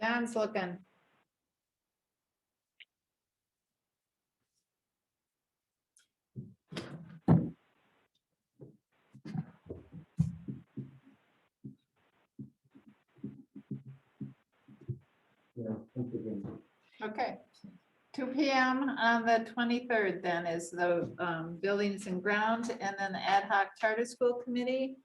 John's looking. Yeah, thank you again. Okay. Two P M on the twenty-third then is the um, Buildings and Grounds and then the Ad hoc Charter School Committee.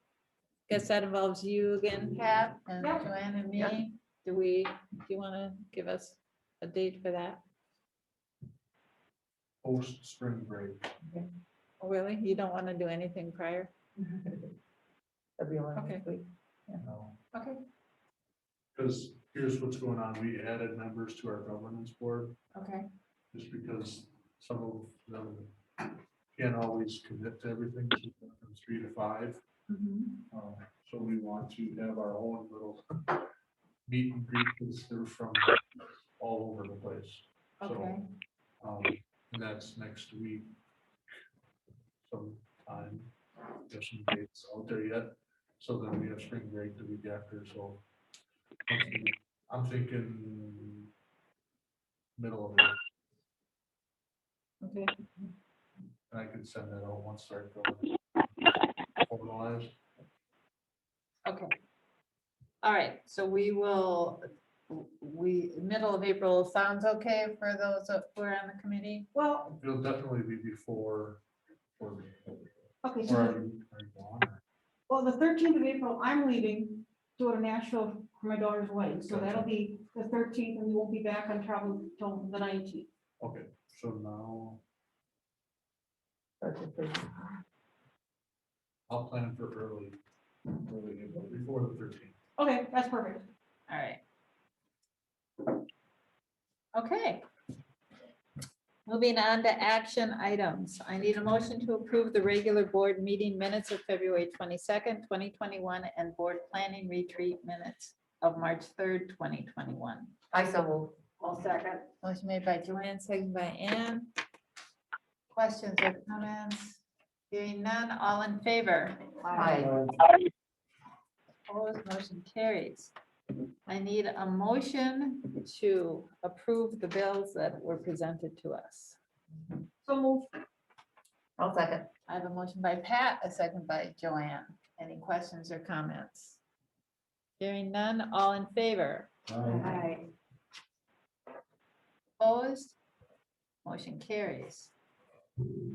Guess that involves you again, Pat, and Yeah. Joanne and Yeah. me. Do we, do you want to give us a date for that? Post spring break. Oh, Really? You don't want to do anything prior? That'd be all right, Okay. please. Okay. Because here's what's going on. We added members to our governance board Okay. just because some of them can't always commit to everything so it's from three to five. Mm-hmm. Um, So we want to have our own little meet and greet because they're from all over the place. Okay. So, um, and that's next week. Sometime, there's some dates out there yet, so then we have spring break the week after, so. I'm thinking middle of, it, Okay. and I can send that out once I go. Formalized, Okay. All right, so we will, we, middle of April sounds okay for those who are on the committee? Well. it'll definitely be before. or- Okay, or so, are you- are you gone? well, the thirteenth of April, I'm leaving to go to Nashville for my daughter's wedding, so that'll Gotcha. be the thirteenth, and we won't be back on travel till the nineteenth. Okay, so now That's a pretty- I'll plan for early, early, April, before the thirteenth. Okay, that's perfect. All right. Okay. Moving on to action items. I need a motion to approve the regular board meeting minutes of February twenty-second, twenty twenty-one, and board planning retreat minutes of March third, twenty twenty-one. I so move. All second. Motion made by Joanne, second by Ann. Questions or comments? Hearing none, all in favor? Aye. Opposed, motion carries. I need a motion to approve the bills that were presented to us. So move. I'll second. I have a motion by Pat, a second by Joanne. Any questions or comments? Hearing none, all in favor? Aye. Opposed? Motion carries.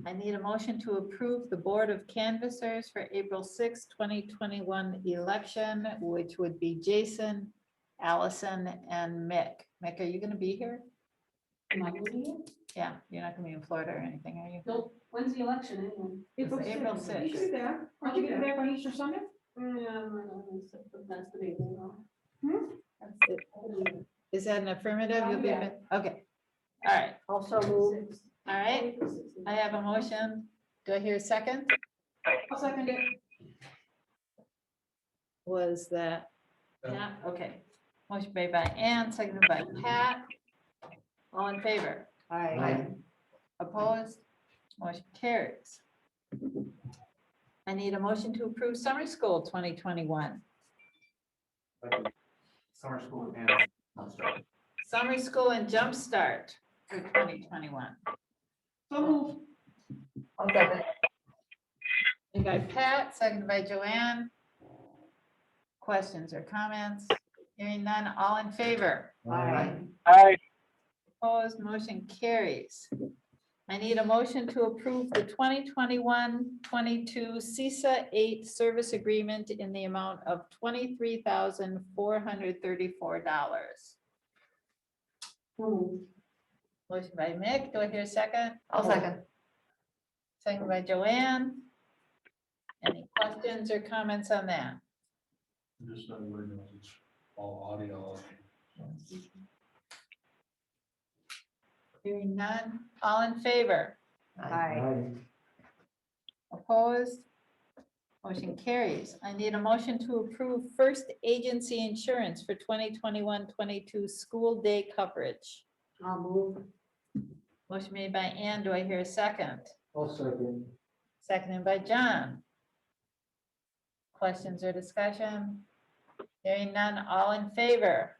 I need a motion to approve the Board of Canvassers for April 6, 2021 election, which would be Jason, Allison, and Mick. Mick, are you going to be here? Am I moving it? Yeah, you're not going to be in Florida or anything, are you? Nope. When's the election anyway? April You should be back. Aren't you gonna be back on Easter Sunday? That's the big one. Is that an affirmative? You'll be, Yeah. back? okay. All right, Also move. all right. I have a motion. Do I hear a second? I'll second it. Was that? Yeah, okay. Motion made by Ann, seconded by Pat. All in favor? Aye. Opposed? Motion carries. I need a motion to approve summer school 2021. Summer school and. Summer school and jumpstart for 2021. So move. I'll second. Made by Pat, seconded by Joanne. Questions or comments? Hearing none, all in favor? Aye. Opposed, motion carries. I need a motion to approve the 2021-22 CISA eight service agreement in the amount of twenty-three thousand four hundred thirty-four dollars. Motion by Mick, do I hear a second? I'll second. Second by Joanne. Any questions or comments on that? Just not word knows it's all audio. Hearing none, all in favor? Aye. Opposed? Motion carries. I need a motion to approve first agency insurance for 2021-22 school day coverage. I'll move. Motion made by Ann. Do I hear a second? I'll second. Seconded by John. Questions or discussion? Hearing none. All in favor?